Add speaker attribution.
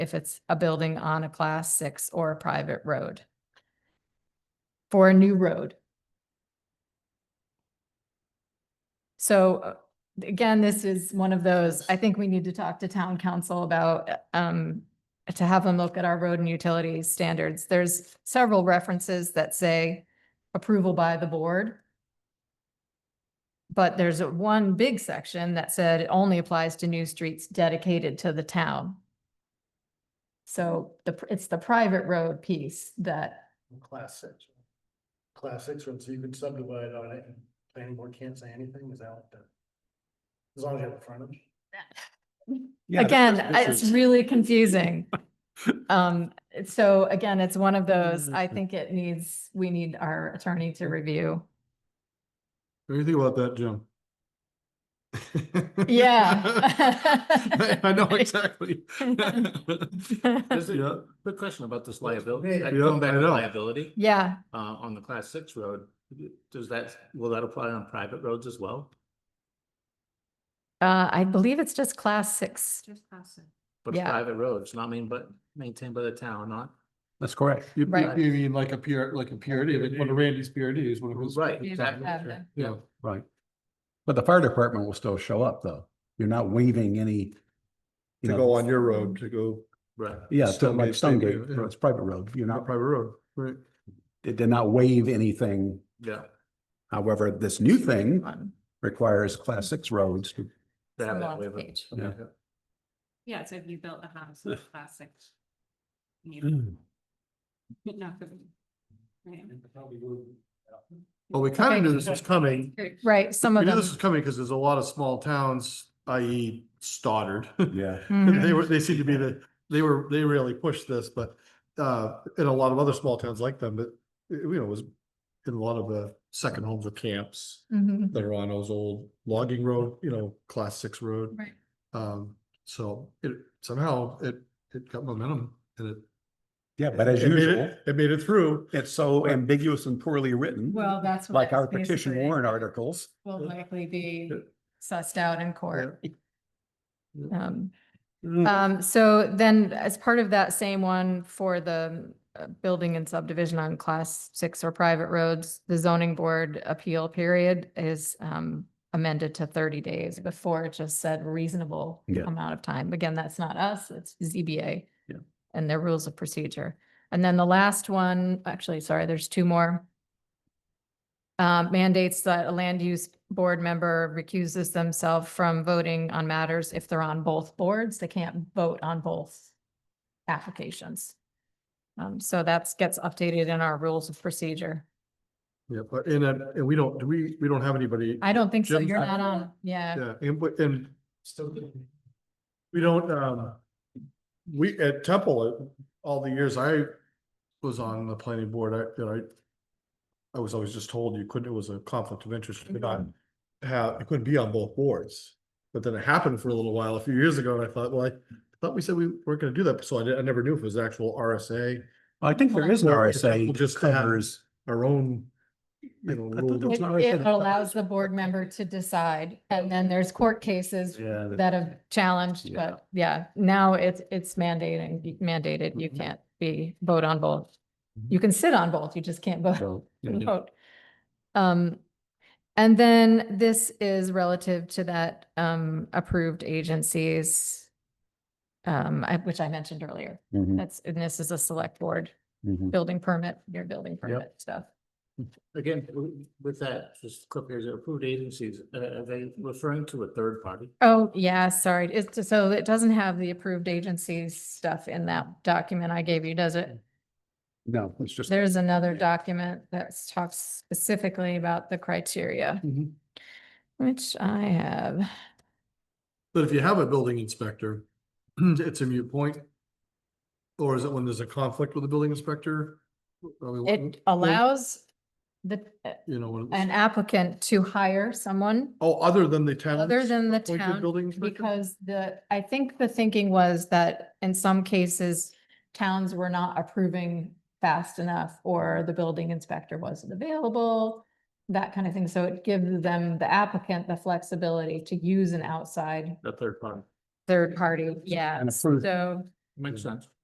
Speaker 1: if it's a building on a class six or a private road. For a new road. So uh, again, this is one of those, I think we need to talk to town council about, uh, um, to have them look at our road and utilities standards. There's several references that say approval by the board. But there's a one big section that said it only applies to new streets dedicated to the town. So the, pr- it's the private road piece that,
Speaker 2: Class six. Class six road, so you can subdivide on it, and planning board can't say anything, is that what the? As long as you have a frontage.
Speaker 3: Yeah, the
Speaker 1: again,
Speaker 3: first
Speaker 1: I- it's
Speaker 3: pictures.
Speaker 1: really confusing. Um, so again, it's one of those, I think it needs, we need our attorney to review.
Speaker 3: What do you think about that, Jim?
Speaker 1: Yeah.
Speaker 3: I I know exactly.
Speaker 4: There's a
Speaker 3: Yeah,
Speaker 4: quick question about this
Speaker 2: Well,
Speaker 4: liability.
Speaker 2: yeah,
Speaker 4: I-
Speaker 3: yeah,
Speaker 4: Going back
Speaker 3: I
Speaker 4: to
Speaker 3: know.
Speaker 4: liability,
Speaker 1: Yeah,
Speaker 4: uh, on the class six road, does that, will that apply on private roads as well?
Speaker 1: uh, I believe it's just class six.
Speaker 4: But it's
Speaker 1: Yeah.
Speaker 4: private roads, not mean, but maintained by the town, not,
Speaker 3: that's correct. You, you-
Speaker 1: Right.
Speaker 3: you mean like a pure, like a purity, like one of Randy's purities, one of his.
Speaker 4: Right,
Speaker 1: exactly.
Speaker 3: Yeah,
Speaker 5: Right. But the fire department will still show up though. You're not waiving any.
Speaker 3: to
Speaker 5: you know,
Speaker 3: go on your road, to go
Speaker 4: right.
Speaker 5: Yeah, so
Speaker 3: Stonegate,
Speaker 5: like
Speaker 3: Stonegate,
Speaker 5: Stonegate,
Speaker 3: yeah.
Speaker 5: it's private road. You're
Speaker 3: on a
Speaker 5: not,
Speaker 3: private road, right?
Speaker 5: it did not waive anything.
Speaker 4: Yeah,
Speaker 5: However, this new thing
Speaker 1: One.
Speaker 5: requires class six roads. to-
Speaker 4: they
Speaker 1: It's
Speaker 4: have
Speaker 1: the
Speaker 4: that
Speaker 1: last
Speaker 4: waiver.
Speaker 1: page.
Speaker 4: Yeah.
Speaker 6: Yeah, so if you built a house
Speaker 4: Yeah.
Speaker 6: with classic. But not for. Right.
Speaker 3: Well, we kind
Speaker 1: Okay.
Speaker 3: of knew this was coming,
Speaker 1: Right, some
Speaker 3: We
Speaker 1: of
Speaker 3: knew
Speaker 1: them.
Speaker 3: this was coming because there's a lot of small towns, i.e. Stoddard.
Speaker 5: Yeah.
Speaker 1: Mhm.
Speaker 3: They were, they seem to be the, they were, they really pushed this, but, uh, in a lot of other small towns like them, but, you know, it was in a lot of the second homes or camps
Speaker 1: Mhm.
Speaker 3: that are on those old logging road, you know, class six road.
Speaker 1: Right.
Speaker 3: Um, so it somehow it, it got momentum and it.
Speaker 5: Yeah, but as
Speaker 3: it made it-
Speaker 5: usual,
Speaker 3: It made it through.
Speaker 5: it's so ambiguous and poorly written,
Speaker 1: Well, that's. what
Speaker 5: like our
Speaker 1: it's
Speaker 5: petition
Speaker 1: basically
Speaker 5: warrant articles.
Speaker 1: Will likely be
Speaker 3: Yeah.
Speaker 1: sussed out in court.
Speaker 3: Yeah. Mm.
Speaker 1: Um, um, so then as part of that same one for the uh, building and subdivision on class six or private roads, the zoning board appeal period is um amended to thirty days before it just said reasonable
Speaker 5: Yeah.
Speaker 1: amount of time. Again, that's not us, it's ZBA.
Speaker 5: Yeah.
Speaker 1: And their rules of procedure. And then the last one, actually, sorry, there's two more. Uh, mandates that a land use board member recuses themselves from voting on matters if they're on both boards. They can't vote on both applications. Um, so that's gets updated in our rules of procedure.
Speaker 3: Yeah, but, and, uh, and we don't, do we, we don't have anybody. uh,
Speaker 1: I don't think so.
Speaker 3: Jim,
Speaker 1: You're
Speaker 3: I-
Speaker 1: not on, yeah.
Speaker 3: Yeah, and, but- and we don't, um, we, at Temple, uh, all the years I was on the planning board, I, that I, I was always just told you couldn't, it was a conflict of interest, you could not have, you couldn't be on both boards. But then it happened for a little while, a few years ago, and I thought, well, I thought we said we weren't gonna do that, so I, di- I never knew if it was actual RSA,
Speaker 5: I think there is an
Speaker 3: Well,
Speaker 5: RSA.
Speaker 3: just have-
Speaker 5: covers.
Speaker 3: our own,
Speaker 5: I-
Speaker 3: you know,
Speaker 5: I thought there
Speaker 3: rule.
Speaker 5: was
Speaker 1: It
Speaker 5: an RSA
Speaker 1: it
Speaker 5: that-
Speaker 1: allows the board member to decide. And then there's court cases
Speaker 5: Yeah. that-
Speaker 1: that have challenged,
Speaker 5: Yeah.
Speaker 1: but yeah, now it's, it's mandating, mandated. You
Speaker 5: Mhm.
Speaker 1: can't be, vote on both.
Speaker 5: Mhm.
Speaker 1: You can sit on both, you just can't vote
Speaker 5: so, yeah.
Speaker 4: Mm-hmm.
Speaker 1: and vote. Um, and then this is relative to that, um, approved agencies, um, I- which I mentioned earlier.
Speaker 5: Mhm,
Speaker 1: That's, and this is a select board
Speaker 5: mhm.
Speaker 1: building permit, your building permit stuff.
Speaker 4: Again, w- with that, just quick, there's approved agencies, uh, are they referring to a third party?
Speaker 1: Oh, yeah, sorry. It's, just- so it doesn't have the approved agencies stuff in that document I gave you, does it?
Speaker 5: No, it's just.
Speaker 1: There's another document that talks specifically about the criteria,
Speaker 5: Mhm.
Speaker 1: which I have.
Speaker 3: But if you have a building inspector, it's a mute point. Or is it when there's a conflict with the building inspector? Are we-
Speaker 1: It allows the,
Speaker 3: You know, when
Speaker 1: an
Speaker 3: it's-
Speaker 1: applicant to hire someone
Speaker 3: oh, other than the town.
Speaker 1: other than the
Speaker 3: appointed
Speaker 1: town.
Speaker 3: Building inspector?
Speaker 1: Because the, I think the thinking was that in some cases, towns were not approving fast enough or the building inspector wasn't available, that kind of thing. So it gives them, the applicant, the flexibility to use an outside
Speaker 4: A third party.
Speaker 1: third party. Yeah,
Speaker 5: And approved.
Speaker 1: so
Speaker 4: makes sense.